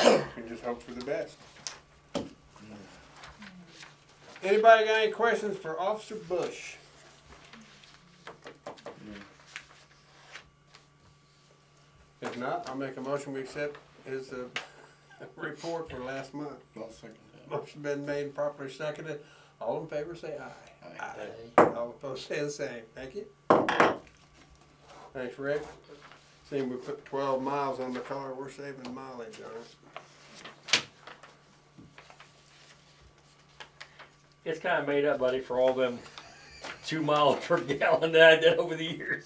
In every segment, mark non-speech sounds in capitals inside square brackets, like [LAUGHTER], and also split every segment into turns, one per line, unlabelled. can just hope for the best.
Anybody got any questions for Officer Bush? If not, I'll make a motion, we accept his, uh, [LAUGHS] report for last month.
I'll second
Motion been made and properly seconded. All in favor, say aye. All opposed, say the same. Thank you. Thanks, Rick. Seeing we put twelve miles on the car, we're saving mileage on it.
It's kind of made up, buddy, for all them two miles [LAUGHS] per gallon that I did over the years.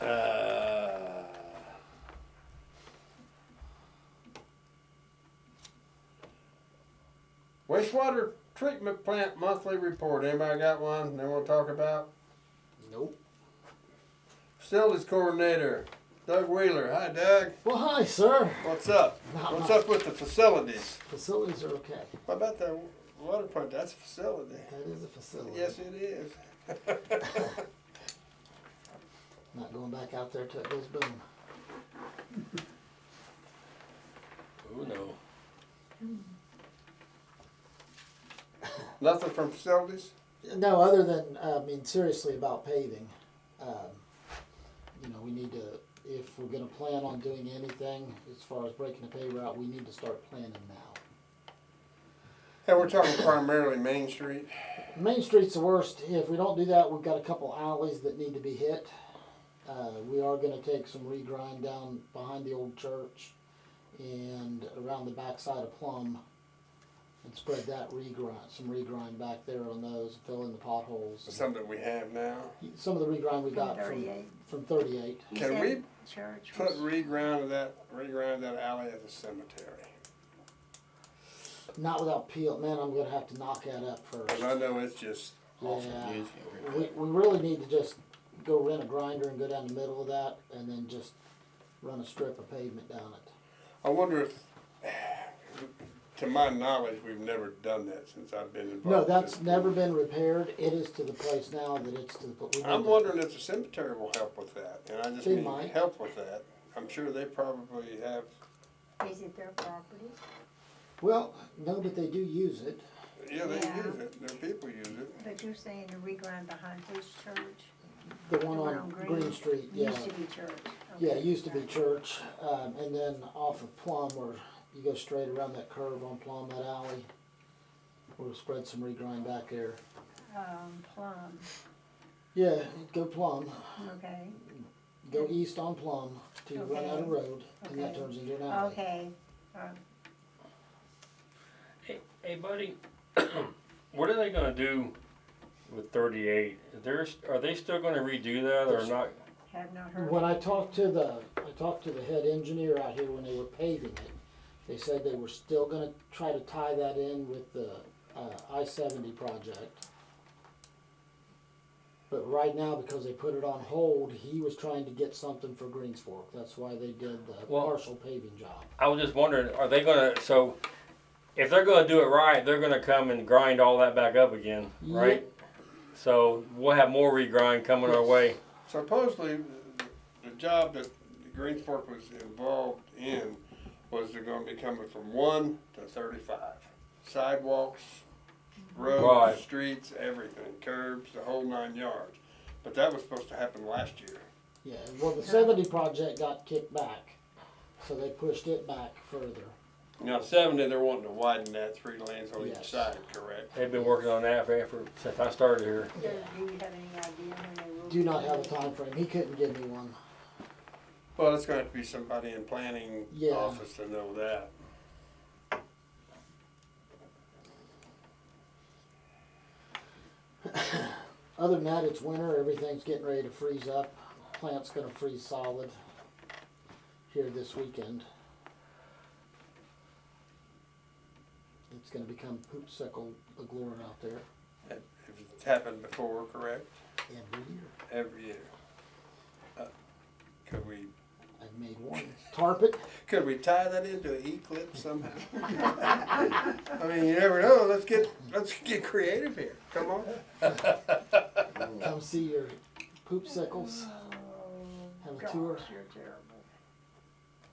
uh,
Wastewater treatment plant monthly report. Anybody got one they wanna talk about?
Nope.
Facilities coordinator, Doug Wheeler. Hi, Doug.
Well, hi, sir.
What's up?
Not
What's
much.
up with the facilities?
Facilities are okay.
What about that water plant? That's a facility.
That is a facility.
Yes, it is.
Not going back out there till it goes boom.
oh no.
Nothing from facilities?
No, other than uh, I mean, seriously about paving. Um, you know, we need to if we're going to plan on doing anything as far as breaking the pay route, we need to start planning now.
Hey, we're talking primarily Main Street.
Main Street's the worst. If we don't do that, we've got a couple alleys that need to be hit. Uh, we are going to take some regrind down behind the old church and around the backside of Plum and spread that regrind, some regrind back there on those, fill in the potholes.
Something we have now.
Some of the regrind we got from,
38.
from 38.
You
Can
said
we
Church.
Put
was-
reground of that, reground that alley at the cemetery.
Not without peel. Man, I'm going to have to knock that up
Cause I
first.
know it's just awful.
Yeah. We, we really need to just go rent a grinder and go down the middle of that and then just run a strip of pavement down it.
I wonder if, to my knowledge, we've never done that since I've been involved.
No,
with
that's
this.
never been repaired. It is to the place now that it's to the. pl- we
I'm
need to-
wondering if the cemetery will help with that, and I just
They
mean
might.
help with that. I'm sure they probably have.
Is it their property?
Well, no, but they do use it.
Yeah, they
Yeah.
use it. Their people use it.
But you're saying the regrind behind his church?
The one on Green Street, yeah.
Used to be church.
Yeah, it
Okay,
used to be
right.
church, um, and then off of Plum where you go straight around that curve on Plum, that alley. We'll spread some regrind back there.
Um, Plum,
Yeah, go Plum,
okay,
go east on Plum to run out of
Okay.
road, and that
Okay.
turns into an alley.
okay.
Hey, buddy, [CLEARS THROAT] what are they gonna do with 38? There's, are they still gonna redo that or not?
Have not heard.
When I talked to the, I talked to the head engineer out here when they were paving it, they said they were still gonna try to tie that in with the, uh, I seventy project. But right now, because they put it on hold, he was trying to get something for Greens Fork, that's why they did the
Well-
partial paving job.
I was just wondering, are they gonna? So, if they're gonna do it right, they're gonna come and grind all that back up again, right? So we'll have more regrind coming our way.
Supposedly, the, the job that Green Fork was involved in was they're going to be coming from one to thirty-five, sidewalks, roads,
Right.
streets, everything, curbs, the whole nine yards. But that was supposed to happen last year.
Yeah, well, the seventy project got kicked back, so they pushed it back further.
Now seventy, they're wanting to widen that three lanes on each
Yes.
side, correct?
They've been working on that for, for since I started here.
Do do you have any idea when they will?
Do not have a time frame. he couldn't give me one.
Well, it's gonna have to be somebody in planning
Yeah.
office to know that.
Other than that, it's winter, everything's getting ready to freeze up, plant's gonna freeze solid here this weekend. It's gonna become poopsicle agloring out there
If It's happened before, correct?
every year.
Every year. Uh, Could we,
I've made one, tarp it,
could we tie that into an eclipse somehow? [LAUGHS] I mean, you never know, let's get, let's get creative here, come on.
come see your poopsicles,
Oh,
Have a
gosh,
tour.
You're terrible.